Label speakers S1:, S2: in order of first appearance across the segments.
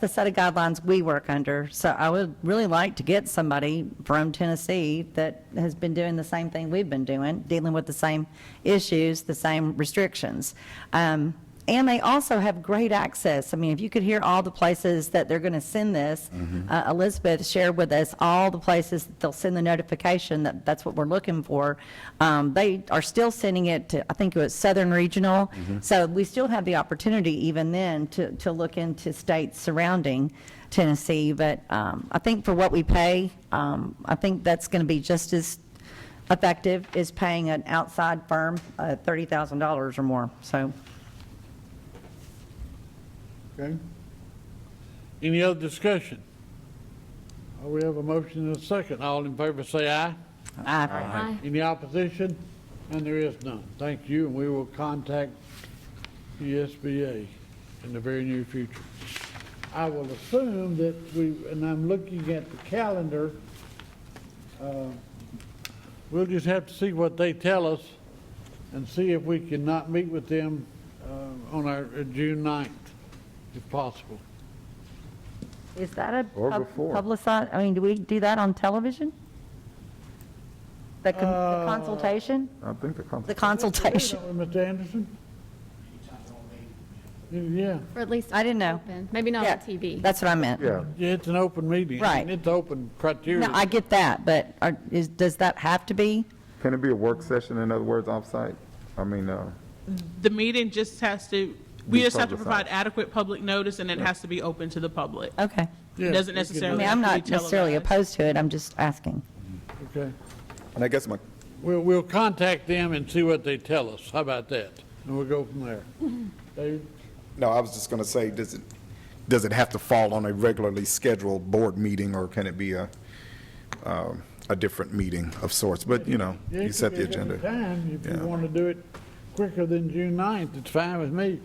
S1: the set of guidelines we work under. So I would really like to get somebody from Tennessee that has been doing the same thing we've been doing, dealing with the same issues, the same restrictions. Um, and they also have great access. I mean, if you could hear all the places that they're going to send this, uh, Elizabeth shared with us all the places that they'll send the notification that that's what we're looking for. Um, they are still sending it to, I think it was Southern Regional.
S2: Mm-hmm.
S1: So we still have the opportunity even then to, to look into states surrounding Tennessee. But um, I think for what we pay, um, I think that's going to be just as effective as paying an outside firm uh, $30,000 or more. So.
S3: Okay,
S4: Any other discussion? Uh, We have a motion and a second. All in favor say aye.
S1: Aye.
S2: Aye.
S4: Any opposition? And there is none. Thank you, and we will contact USBA in the very near future. I will assume that we, and I'm looking at the calendar, uh, we'll just have to see what they tell us and see if we can not meet with them uh, on our uh, June 9th, if possible.
S1: Is that a
S2: Or
S1: pub-
S2: before.
S1: publicized, I mean, do we do that on television? The con- the consultation?
S2: I think the
S1: The
S2: consultation.
S1: consultation.
S4: Don't we, Mr. Anderson? Yeah,
S5: Or at least
S1: I didn't know.
S5: open, maybe not
S1: Yeah,
S5: on TV.
S1: That's what I meant.
S2: Yeah,
S4: yeah, it's an open meeting.
S1: Right.
S4: And it's open criteria.
S1: No, I get that, but are, is, does that have to be?
S2: can it be a work session, in other words, off-site? I mean, uh,
S6: The meeting just has to, we
S2: Be
S6: just have to
S2: publicized.
S6: provide adequate public notice, and it has to be open to the public.
S1: Okay.
S4: Yeah,
S6: It
S4: we can
S6: doesn't
S4: do
S1: I
S6: necessarily
S1: mean,
S6: have
S1: I'm
S6: to be
S1: not necessarily
S6: televised.
S1: opposed to it, I'm just asking.
S4: Okay.
S2: and I guess my,
S4: We'll, we'll contact them and see what they tell us. How about that? And we'll go from there.
S1: Mm-hmm.
S4: David?
S7: No, I was just going to say, does it, does it have to fall on a regularly scheduled board meeting, or can it be a, um, a different meeting of sorts? But, you know,
S4: Yeah,
S7: you
S4: it
S7: set
S4: could be
S7: the
S4: a different
S7: agenda.
S4: Time, if
S7: Yeah.
S4: you want to do it quicker than June 9th, it's fine with me.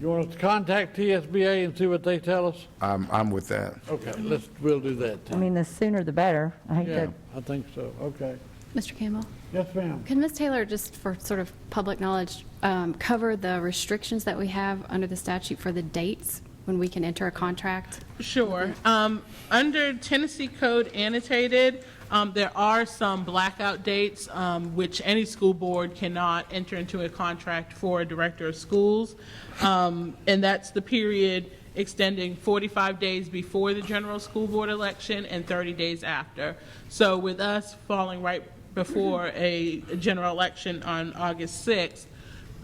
S4: You want us to contact TSBA and see what they tell us?
S7: I'm, I'm with that.
S4: Okay, let's, we'll do that
S1: I
S4: then.
S1: mean, the sooner the better. I hate
S4: Yeah,
S1: to,
S4: I think so. Okay.
S5: Mr. Campbell,
S4: Yes, ma'am.
S5: can Ms. Taylor, just for sort of public knowledge, um, cover the restrictions that we have under the statute for the dates when we can enter a contract?
S6: Sure. Um, under Tennessee Code annotated, um, there are some blackout dates, um, which any school board cannot enter into a contract for a director of schools. Um, and that's the period extending 45 days before the general school board election and 30 days after. So with us falling right before a general election on August 6th,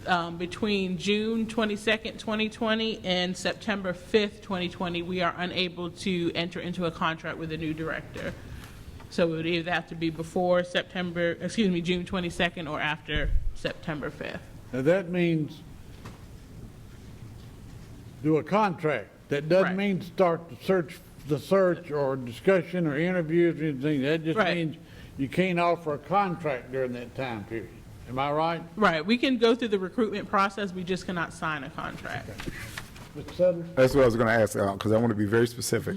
S6: um, between June 22nd, 2020 and September 5th, 2020, we are unable to enter into a contract with a new director. So it would either have to be before September, excuse me, June 22nd or after September 5th.
S4: Now, that means do a contract. That doesn't
S6: Right.
S4: mean start the search, the search or discussion or interviews or anything. That just
S6: Right.
S4: means you can't offer a contract during that time period. Am I right?
S6: Right, we can go through the recruitment process, we just cannot sign a contract.
S4: Mr. Sutherland?
S7: That's what I was going to ask, because I want to be very specific.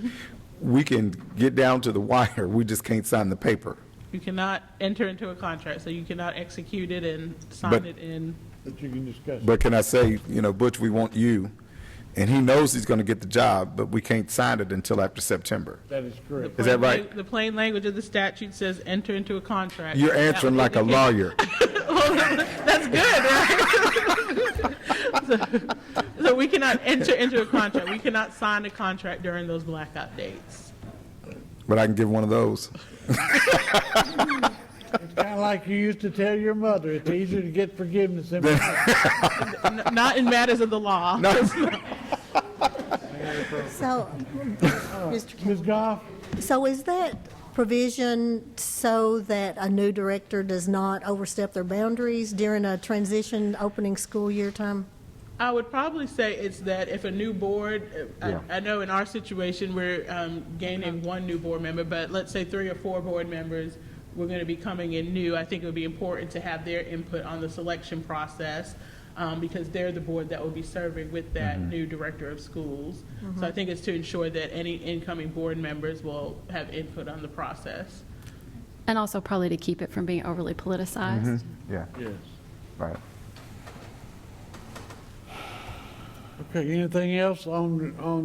S7: We can get down to the wire, we just can't sign the paper.
S6: You cannot enter into a contract, so you cannot execute it and sign
S7: But-
S6: it in.
S4: That you can discuss.
S7: But can I say, you know, Butch, we want you, and he knows he's going to get the job, but we can't sign it until after September.
S4: That is correct.
S7: Is that right?
S6: Plain- The plain language of the statute says enter into a contract.
S7: You're
S6: That would
S7: answering like a
S6: indicate-
S7: lawyer.
S6: That's good, right? so, so we cannot enter into a contract. We cannot sign a contract during those blackout dates.
S7: But I can give one of those.
S4: It's kind of like you used to tell your mother, it's easier to get forgiveness than...
S6: N- not in matters of the law.
S8: So, Mr.
S4: Ms. Goff?
S8: Kim- so is that provision so that a new director does not overstep their boundaries during a transition opening school year time?
S6: I would probably say it's that if a new board, I, I know in our situation we're um, gaining one new board member, but let's say three or four board members we're going to be coming in new. I think it would be important to have their input on the selection process um, because they're the board that will be serving with that new director of schools. So I think it's to ensure that any incoming board members will have input on the process.
S5: And also probably to keep it from being overly politicized.
S1: Mm-hmm.
S2: yeah,
S4: Yes.
S2: right.
S4: Okay, anything else on, on